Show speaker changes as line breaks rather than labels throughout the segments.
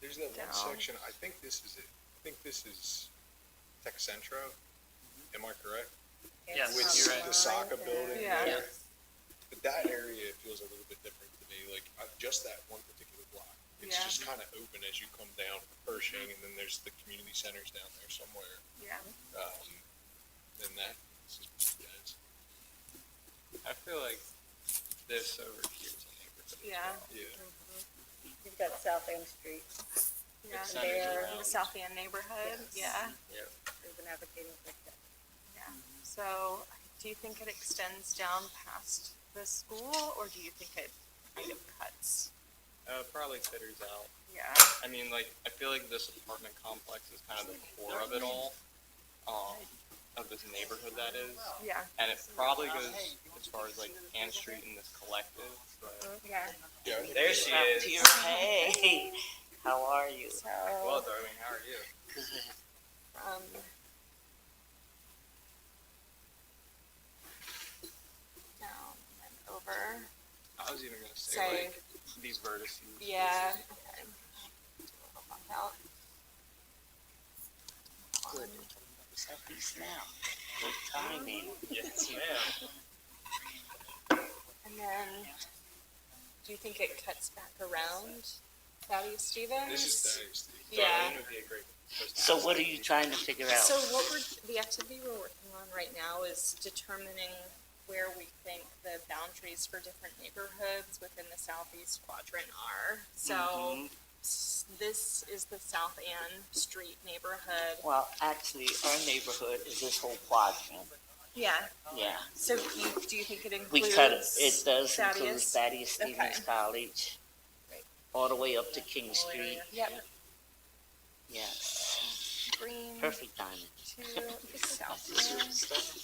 there's that one
Down.
section, I think this is it, I think this is Tech Centro, am I correct?
Mm-hmm. Yes,
With
you're
the
right.
Saka building
Yeah.
there. But that area feels a little bit different to me, like, uh, just that one particular block. It's
Yeah.
just kinda open as you come down Pershing, and then there's the community centers down there somewhere,
Yeah.
um, and that, this is, yeah, it's-
I feel like this over here is a neighborhood. as
Yeah.
well.
yeah.
You've got South End Street,
Yeah.
It's
not as
There,
around.
the South End neighborhood.
Yes.
Yeah.
Yep.
we've been advocating for that.
Yeah. So do you think it extends down past the school or do you think it kind of cuts?
Uh, probably fitters out.
Yeah.
I mean, like, I feel like this apartment complex is kind of the core of it all, um, of this neighborhood that is.
Yeah.
And it probably goes as far as like Ann Street and this collective, but,
Yeah.
Yeah. I think
There
it's-
she
Up
is.
to
Hey, how are you?
So,
well, Darlene, how are you?
um, down and over.
I was even gonna say
Sorry.
like these vertices.
Yeah. Okay. Do a little bump out.
Good. Southeast now. Good timing.
Yes, ma'am.
And then, do you think it cuts back around Thaddeus Stevens?
This is Thaddeus.
Yeah.
Darlene would be a great person.
So what are you trying to figure out?
So what we're, the activity we're working on right now is determining where we think the boundaries for different neighborhoods within the southeast quadrant are. So
Mhm.
s- this is the South Ann Street neighborhood.
Well, actually, our neighborhood is this whole quadrant,
Yeah,
yeah.
so you, do you think it includes?
We cut, it It does include
Thaddeus?
Thaddeus Stevens
Okay.
College,
Right.
all the way up to King Street,
Yep,
yes,
green
perfect timing,
to South Ann.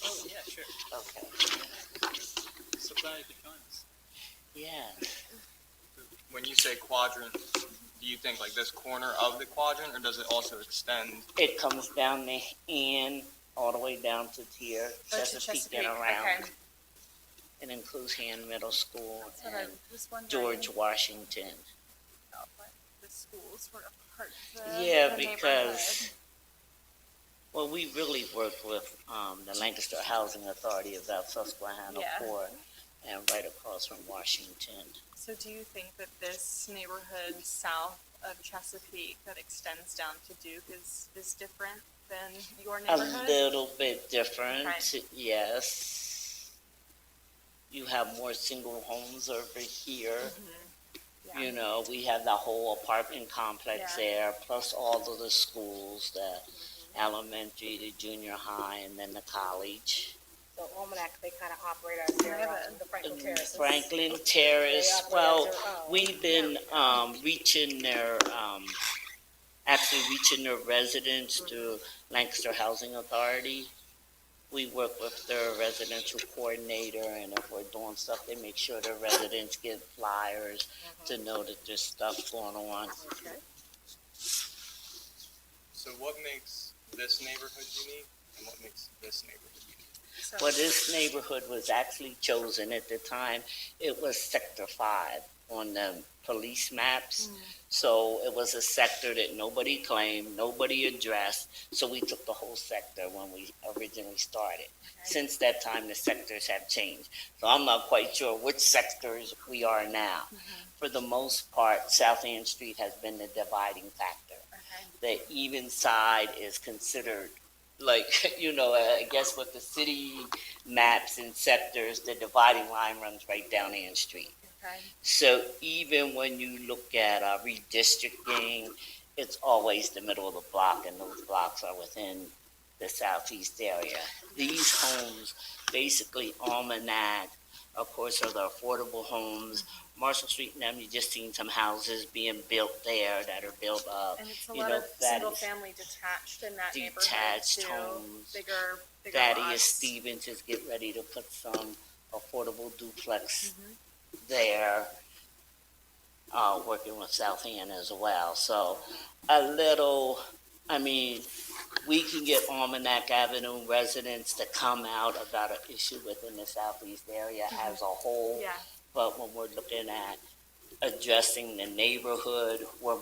Oh, yeah, sure.
okay,
So glad you could join us.
yeah.
When you say quadrant, do you think like this corner of the quadrant, or does it also extend?
It comes down the hand, all the way down to here,
Oh, to
Chesapeake and
Okay,
around. It includes hand Middle School
that's what I
and
was wondering.
George Washington.
about what the schools were a part of the
Yeah,
the
because, well, we really worked with, um, the Lancaster Housing Authority of South Susquehanna
Yeah.
for, and right across from Washington.
neighborhood. So do you think that this neighborhood south of Chesapeake that extends down to Duke is, is different than your
A
neighborhood?
little bit different,
Right.
yes. You have more single homes over here.
Mm-hmm. Yeah.
You know, we have the whole apartment complex
Yeah. Mm-hmm.
there, plus all of the schools, the elementary, the junior high, and then the college.
So Almanac, they kind of operate out there,
Yeah,
off the Franklin Terrace.
Franklin Terrace,
They operate
well,
as their own.
we've been, um, reaching their, um, actually reaching their residents through Lancaster Housing Authority. We work with their residential coordinator, and if we're doing stuff, they make sure their residents get flyers to know that there's stuff going on.
Okay.
So what makes this neighborhood unique, and what makes this neighborhood unique?
So-
Well, this neighborhood was actually chosen at the time, it was Sector Five on the police maps. So it was a sector that nobody claimed, nobody addressed, so we took the whole sector when we originally started. Since that time, the sectors have changed, so I'm not quite sure which sectors we are now. For the most part, South Ann Street has been the dividing factor
Okay.
the even side is considered like you know i guess with the city maps and sectors the dividing line runs right down ann street
Okay.
so even when you look at uh, redistricting it's always the middle of the block and those blocks are within the southeast area these homes basically almanac of course are the affordable homes marshall street and them you just seen some houses being built there that are built up
And it's a
You
lot
know,
of
that
single-family detached in that neighborhood
detached
too.
homes.
Bigger, bigger
Thaddeus
lots.
Stevens is getting ready to put some affordable duplex
Mm-hmm.
there, uh, working with South End as well. So a little, I mean, we can get Almanac Avenue residents to come out about an issue within the southeast area as a whole.
Mm-hmm. Yeah.
But when we're looking at addressing the neighborhood, we're